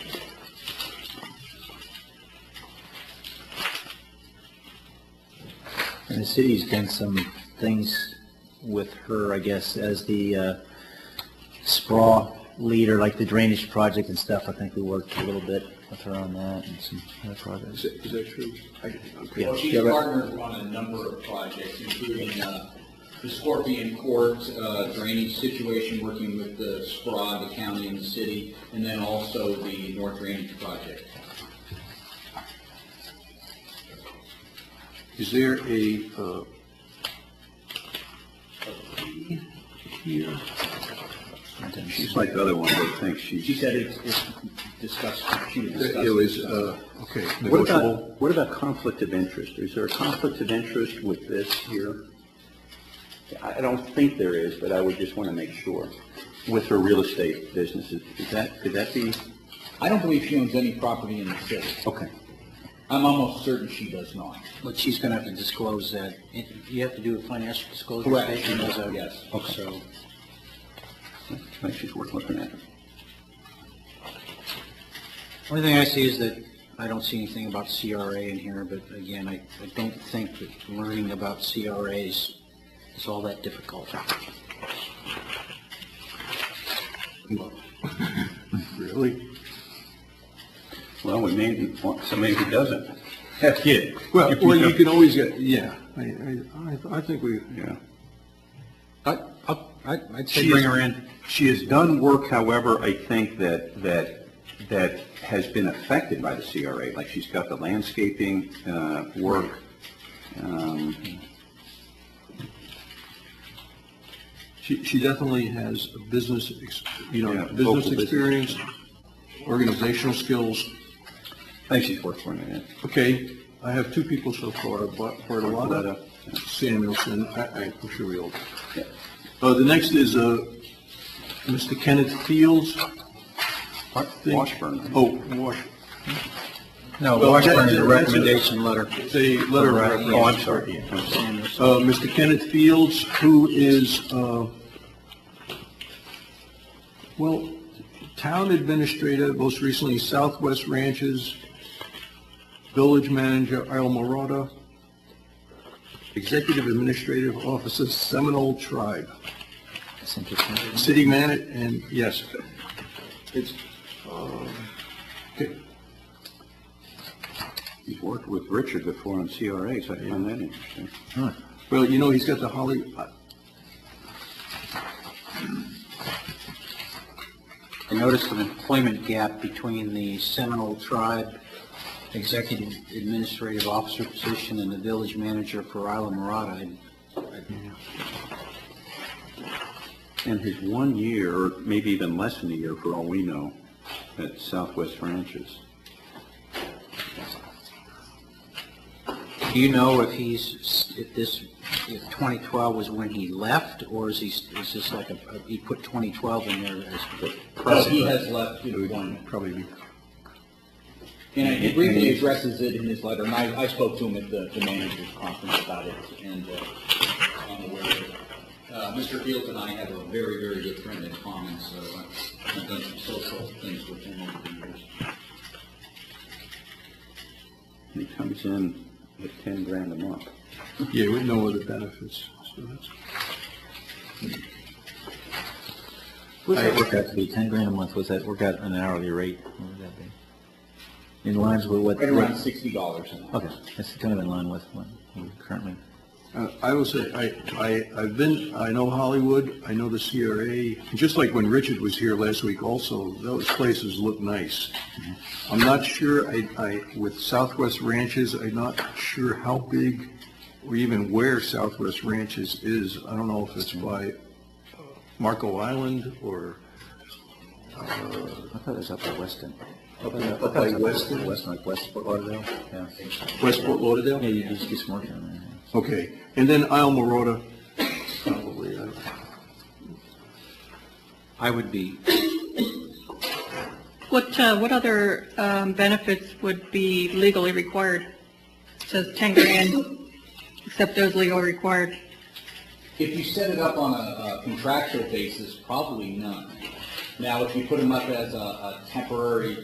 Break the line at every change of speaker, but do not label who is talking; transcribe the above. The city's done some things with her, I guess, as the uh, sprawl leader, like the drainage project and stuff. I think we worked a little bit with her on that and some other projects.
that- is that true? I- okay.
Well, she's
Yeah, but-
partnered on a number of projects, including uh, the Scorpion Court uh, drainage situation, working with the SPRA, the county and the city, and then also the North Drainage Project.
Is there a, uh, a lady here? She's like the other one, but I think
She
she's,
said it's it's discussed, she was discussing.
it was, uh, okay.
What about, what about conflict of interest? Is there a conflict of interest with this here? I I don't think there is, but I would just want to make sure. With her real estate businesses, is that, could that be,
I don't believe she owns any property in the city.
okay.
I'm almost certain she does not.
But she's going to have to disclose that. You have to do a financial disclosure
Correct. statement as a- Yes.
So
Makes she's worth looking at.
Only thing I see is that I don't see anything about CRA in here, but again, I, I don't think that learning about CRAs is all that difficult.
Really? Well, we may want somebody who doesn't. Heck, yeah.
Well, well, you can always get, yeah, I, I, I- I think we,
Yeah.
I, I- I, I'd say
She
bring
is-
her in.
She has done work, however, I think that, that, that has been affected by the CRA, like she's got the landscaping, uh, work. Um,
She, she definitely has a business, ex- you
Yeah,
know,
local
business
business.
experience, organizational skills.
I think she's worth looking at.
Okay, I have two people so far, but Bartolotta, Samuelson, I, I- I'm sure we all.
Yeah.
Uh, the next is, uh, Mr. Kenneth Fields. I think-
Washburn.
Oh, Wash,
No,
Well, Washburn is a that- that's a- recommendation
letter.
the letter of reference.
Oh, I'm sorry. yeah, I'm sorry.
Uh, Mr. Kenneth Fields, who is, uh, well, town administrator, most recently Southwest Ranches, village manager, Isle Morada, executive administrative officer, Seminole Tribe,
That's interesting.
city manager, and yes, it's, uh, okay,
He's worked with Richard before on CRAs, I find that interesting.
well, you know, he's got the Holly, uh,
I noticed an employment gap between the Seminole Tribe Executive Administrative Officer position and the village manager for Isla Morada.
And his one year, or maybe even less than a year for all we know, at Southwest Ranches.
Do you know if he's, if this, if 2012 was when he left, or is he, is this like a, he put 2012 in there as
But he has left in one.
probably be
And he briefly addresses it in his letter, and I, I spoke to him at the, the manager's conference about it, and, uh, I'm aware of it. Uh, Mr. Fields and I have a very, very good friend in common, so I've I've done some social things with him over the years.
And he comes in at ten grand a month.
Yeah, with no other benefits, so that's.
What does that work out to be, ten grand a month, was that work out an hourly rate? What would that be? In lines with what?
Right around sixty dollars an hour.
Okay, that's kind of in line with what we currently,
Uh, I will say, I, I, I've been, I know Hollywood, I know the CRA, just like when Richard was here last week also, those places look nice. I'm not sure, I, I, with Southwest Ranches, I'm not sure how big or even where Southwest Ranches is. I don't know if it's by Marco Island or
I thought it was up at Weston.
Up in- up by Weston?
Weston, like West Fort Lauderdale, yeah.
Westport Lauderdale?
Yeah, you just, just working on that.
Okay, and then Isle Morada, probably, I don't-
I would be,
What, uh, what other um, benefits would be legally required? It Says 10 grand, except those legally required.
If you set it up on a a contractual basis, probably none. Now, if you put them up as a, a temporary